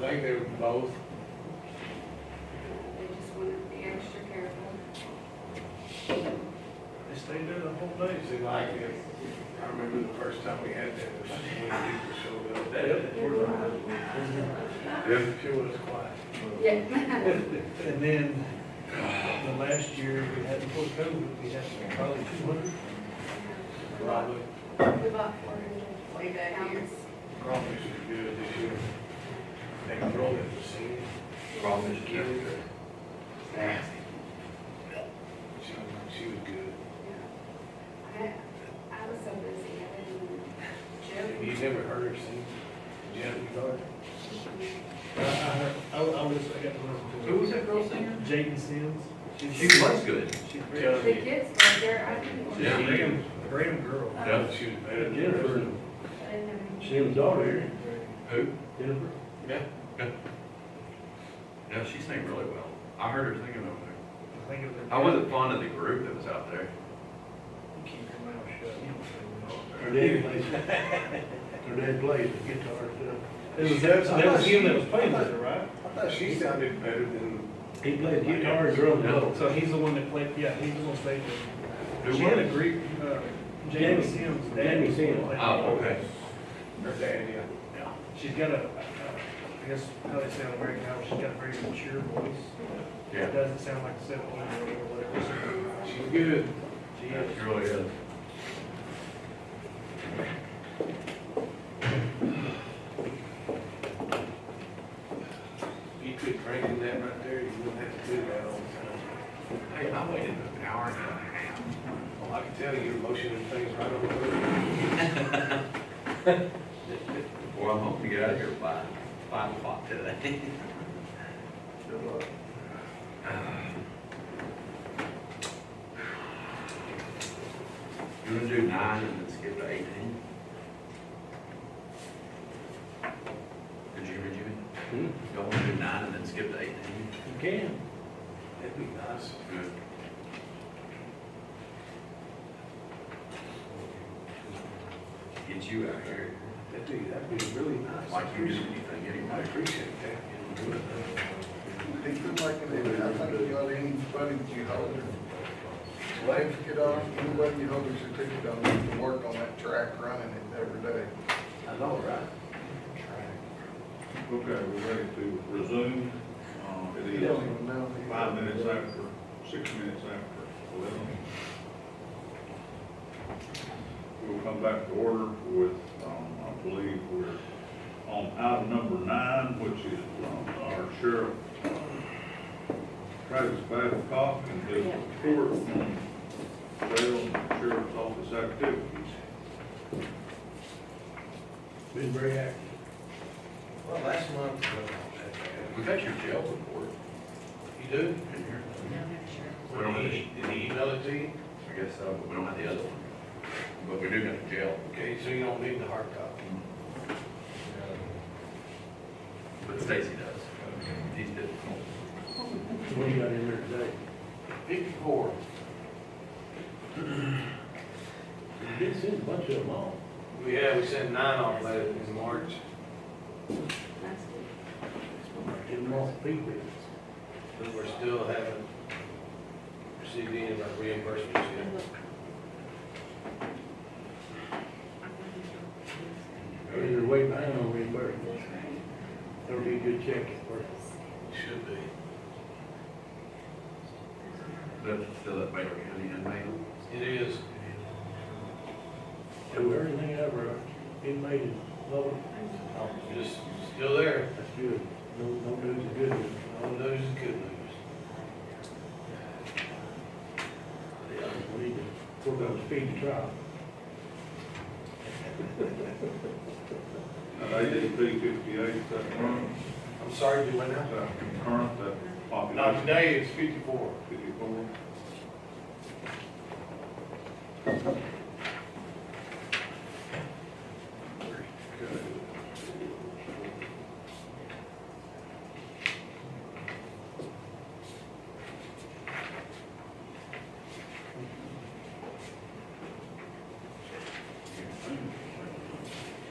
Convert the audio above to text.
think they were both. They just want to be extra careful. They stayed there the whole day. They like it. I remember the first time we had that, was when people showed up. That airport, Yeah. sure was quiet. Yeah. And then, uh, the last year, we had, before COVID, we had probably two hundred, We bought- probably, we bought four hundred Way forty back here. pounds. Probably should do it this year. they rolled it to see. Probably should do it. Nasty. She, she was good. I, I was so busy, I didn't even joke. You never heard her sing? Jen Garden? I, I, heard- I, I was, I got to listen to it. Who was that girl singer? Jaden Sims. She's- She was good. She's Yeah. very, The kids were there, I didn't. she's Yeah. a Graham, Graham girl. Yeah, she was better than the rest of Jennifer, them. I didn't have any- she was over here, Who? Jennifer. Yeah. No, she sang really well. I heard her singing over there. I think it was. I wasn't fond of the group that was out there. Keep your mouth shut, you don't say no. Her dad plays, her dad plays the guitar and It was, that that was him that was playing with her, right? I thought she sounded better than, stuff. He plays guitar and drums. though. So he's the one that played, yeah, he was on stage. with her. Who She had a was? Greek, uh, Jamie. Jamie Sims. dad Jamie Sims. played. Oh, okay. her dad, yeah. Yeah. She's got a, I guess, how they say on American Idol, she's got a very mature voice. It Yeah. doesn't sound like a seventeen year old or whatever. She's good. She She is. really is. You could drink in that right there, you wouldn't have to do that all the Hey, I waited an hour and a half. time. Well, I can tell you, you're motioning things right on the road. Well, I'm hoping to get out of here by five o'clock today. You wanna do nine and then skip to eighteen? Did you hear me, Hmm? Jimmy? Y'all wanna do nine and then skip to eighteen? You can. That'd be nice. Good. Get you out here, That'd be, that'd be really nice. like you do anything I anyway. appreciate that. They feel like it is. I think you ought to anybody that you hold it, legs get off, anybody you hold it should take it on, you can work on that track running it every day. I know, right? Okay, we're ready to resume. Uh, You It don't is even know. five minutes after, six minutes after eleven. We'll come back to order with, um, I believe we're on item number nine, which is um, our sheriff, uh, Travis Babcock, and his report on jail and sheriff's office activities. Been very active. Well, last month, uh, We got your jail report you do? in here. We don't have Did the, he email it to you? I guess so, but we don't have the other one. But we do got the jail, Okay, so you don't need the hard copy. but Stacy does. He's difficult. What do you got in there today? Fifty-four. You did send a bunch of them all. We had, we sent nine off that in March. That's good. Didn't want people. But we're still haven't received any of our reimbursements yet. They're way behind on reimbursement. That'll be a good check for Should be. But still at Baylor County inmate. It is. So everything ever inmate is lower. Just still there. That's good. No, no news is good. No news is good news. We need to work on speed to trial. At ADP fifty-eight, that current, I'm sorry, you went out. that current, that population. Not today, it's fifty-four. Fifty-four.